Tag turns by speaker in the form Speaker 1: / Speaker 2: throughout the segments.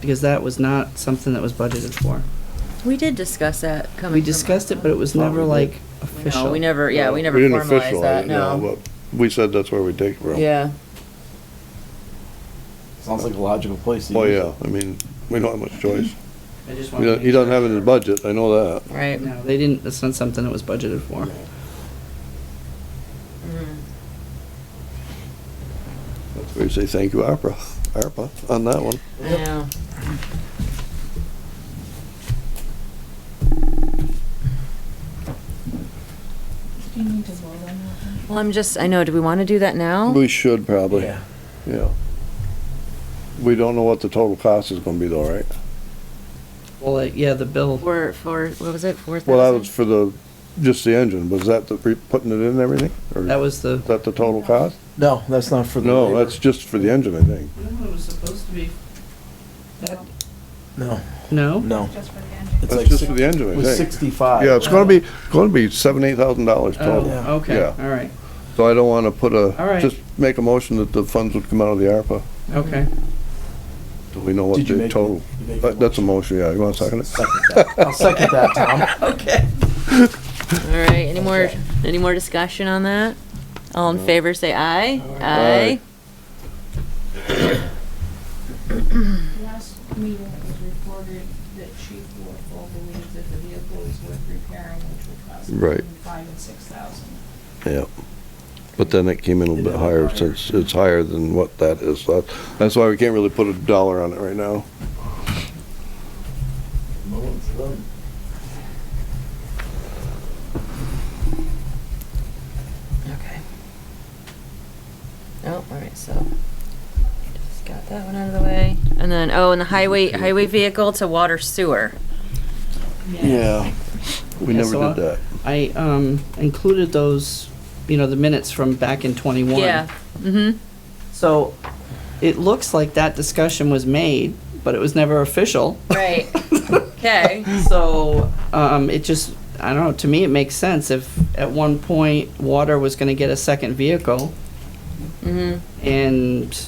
Speaker 1: because that was not something that was budgeted for.
Speaker 2: We did discuss that coming.
Speaker 1: We
Speaker 2: from
Speaker 1: discussed it, but it was never like official.
Speaker 2: No, we never, yeah, we never
Speaker 3: didn't
Speaker 2: formalized that,
Speaker 3: officialize,
Speaker 2: no.
Speaker 3: but We said that's where we take it from.
Speaker 2: Yeah,
Speaker 4: Sounds like a logical place to
Speaker 3: Oh,
Speaker 4: use it.
Speaker 3: yeah, I mean, we don't have much choice.
Speaker 1: I just
Speaker 3: He
Speaker 1: wanted to
Speaker 3: don't- he
Speaker 1: make
Speaker 3: doesn't
Speaker 1: sure.
Speaker 3: have it in his budget, I know that.
Speaker 2: right.
Speaker 1: No, they didn't, that's not something that was budgeted for.
Speaker 2: Mm-hmm.
Speaker 3: That's where you say thank you, ARPA, ARPA, on that one.
Speaker 2: I know.
Speaker 5: Do you need to vote on that?
Speaker 2: Well, I'm just, I know, do we want to do that now?
Speaker 3: We should probably, yeah. We don't know what the total cost is gonna be though, right?
Speaker 1: Well, like, yeah, the bill,
Speaker 2: For, for, what was it, four thousand?
Speaker 3: Well, that was for the, just the engine, was that the, pre- putting it in and everything? Or
Speaker 1: that
Speaker 3: is
Speaker 1: was the.
Speaker 3: that the total cost?
Speaker 4: No, that's not for the.
Speaker 3: No,
Speaker 4: labor.
Speaker 3: that's just for the engine, I think.
Speaker 1: No, it was supposed to be.
Speaker 4: No,
Speaker 1: No?
Speaker 4: no.
Speaker 5: Just for the engine.
Speaker 3: That's
Speaker 4: like
Speaker 3: just
Speaker 4: six-
Speaker 3: for the engine,
Speaker 4: It
Speaker 3: I
Speaker 4: was
Speaker 3: think.
Speaker 4: sixty-five.
Speaker 3: Yeah, it's gonna be, gonna be seven, eight thousand dollars
Speaker 1: Oh,
Speaker 3: total.
Speaker 1: okay,
Speaker 3: Yeah.
Speaker 1: all right,
Speaker 3: So I don't wanna put
Speaker 1: All right.
Speaker 3: a, just make a motion that the funds would come out of the ARPA.
Speaker 1: okay.
Speaker 3: Do we know what
Speaker 4: Did you
Speaker 3: the
Speaker 4: make-
Speaker 3: total?
Speaker 4: you make
Speaker 3: That-
Speaker 4: the
Speaker 3: That's a motion, yeah, you wanna second it?
Speaker 4: Second that. I'll second that, Tom.
Speaker 2: All right, any more, any more discussion on that? All in favor, say aye. Aye.
Speaker 5: Last meeting it was reported that Chief Warfel believes that the vehicle is worth repairing, which would cost
Speaker 3: Right.
Speaker 5: between five and six thousand.
Speaker 3: Yeah. But then it came in a little bit higher since it's higher than what that is. So That's why we can't really put a dollar on it right now.
Speaker 2: Okay. Oh, all right, so, just got that one out of the way. And then, oh, and the highway, highway vehicle to water sewer.
Speaker 3: Yeah. We
Speaker 1: Yeah,
Speaker 3: never
Speaker 1: so I-
Speaker 3: did that.
Speaker 1: I, um, included those, you know, the minutes from back in twenty-one.
Speaker 2: Yeah, mm-hmm,
Speaker 1: So it looks like that discussion was made, but it was never official.
Speaker 2: right. Okay,
Speaker 1: So, um, it just, I don't know, to me, it makes sense if at one point water was gonna get a second vehicle
Speaker 2: mm-hmm.
Speaker 1: and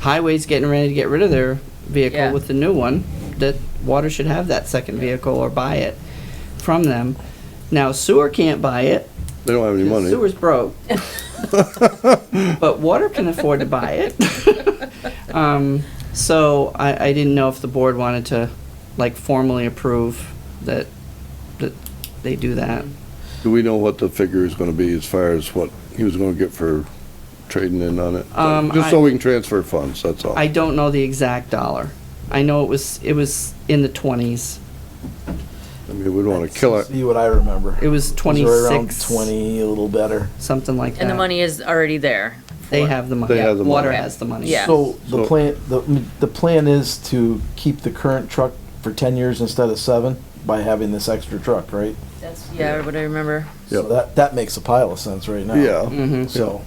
Speaker 1: highway's getting ready to get rid of their
Speaker 2: Yeah.
Speaker 1: vehicle with the new one, that water should have that second vehicle or buy it from them. Now sewer can't buy it,
Speaker 3: They don't have any money.
Speaker 1: Sewer's broke. But water can afford to buy it. Um, So I, I didn't know if the board wanted to, like, formally approve that, that they do that.
Speaker 3: Do we know what the figure is gonna be as far as what he was gonna get for trading in on it? So-
Speaker 1: Um,
Speaker 3: Just
Speaker 1: I-
Speaker 3: so we can transfer funds, that's all.
Speaker 1: I don't know the exact dollar. I know it was, it was in the twenties.
Speaker 3: I mean, we don't wanna kill it.
Speaker 4: See what I remember.
Speaker 1: It was
Speaker 4: It was right around
Speaker 1: 26.
Speaker 4: Twenty, a little better.
Speaker 1: Something like that.
Speaker 2: And the money is already there.
Speaker 1: They have the money.
Speaker 3: They have the
Speaker 1: Water
Speaker 3: money.
Speaker 1: has the money.
Speaker 2: Yeah.
Speaker 4: So the
Speaker 3: So-
Speaker 4: plan, the, the plan is to keep the current truck for ten years instead of seven by having this extra truck, right?
Speaker 2: That's, yeah, what I remember.
Speaker 4: So
Speaker 3: Yep.
Speaker 4: that, that makes a pile of sense right now.
Speaker 3: Yeah.
Speaker 1: hmm
Speaker 4: So,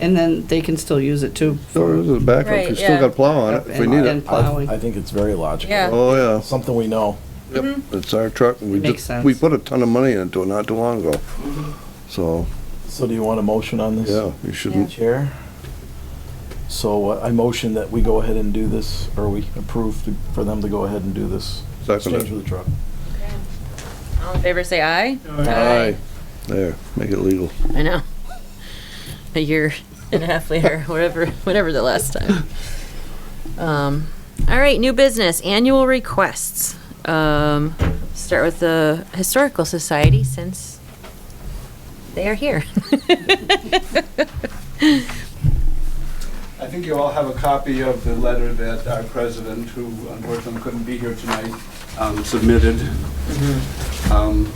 Speaker 1: And then they can still use it too.
Speaker 3: So there's a
Speaker 2: Right,
Speaker 3: backup, we still
Speaker 2: yeah.
Speaker 3: got plow on it if we
Speaker 1: And-
Speaker 3: need
Speaker 1: and
Speaker 3: it.
Speaker 1: plowing.
Speaker 4: I, I think it's very logical.
Speaker 2: Yeah.
Speaker 1: uh,
Speaker 3: Oh, yeah.
Speaker 4: Something we know.
Speaker 3: Yep, it's our truck, and we
Speaker 1: Mm-hmm. Makes
Speaker 3: just,
Speaker 1: sense. Mm-hmm.
Speaker 3: we put a ton of money into it not too long ago. So,
Speaker 4: So do you want a motion on this?
Speaker 3: yeah, you shouldn't,
Speaker 4: Chair. So uh, I motion that we go ahead and do this, or we approve to- for them to go ahead and do this.
Speaker 3: Second it.
Speaker 4: Exchange of the truck.
Speaker 2: All in favor, say aye.
Speaker 3: aye, there, make it legal.
Speaker 2: I know. A year and a half later, whatever, whatever the last time. Um, all right, new business, annual requests. Um, start with the Historical Society since they are here.
Speaker 6: I think you all have a copy of the letter that our president, who unfortunately couldn't be here tonight, um, submitted. Um,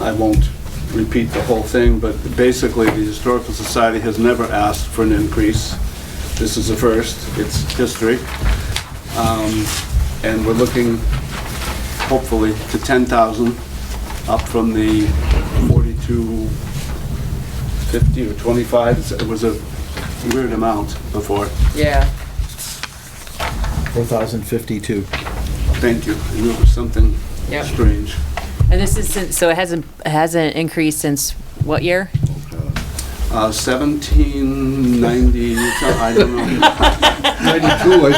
Speaker 6: I won't repeat the whole thing, but basically, the Historical Society has never asked for an increase. This is the first, it's history. Um, And we're looking, hopefully, to 10,000, up from the 42, 50 or 25, It's- it was a weird amount before.
Speaker 2: Yeah.
Speaker 4: Four thousand fifty-two.
Speaker 6: Thank you. I knew it was something
Speaker 2: Yep.
Speaker 6: strange.
Speaker 2: And this is since, so it hasn't, it hasn't increased since what year?
Speaker 6: Uh, 1790, I don't know, 92, I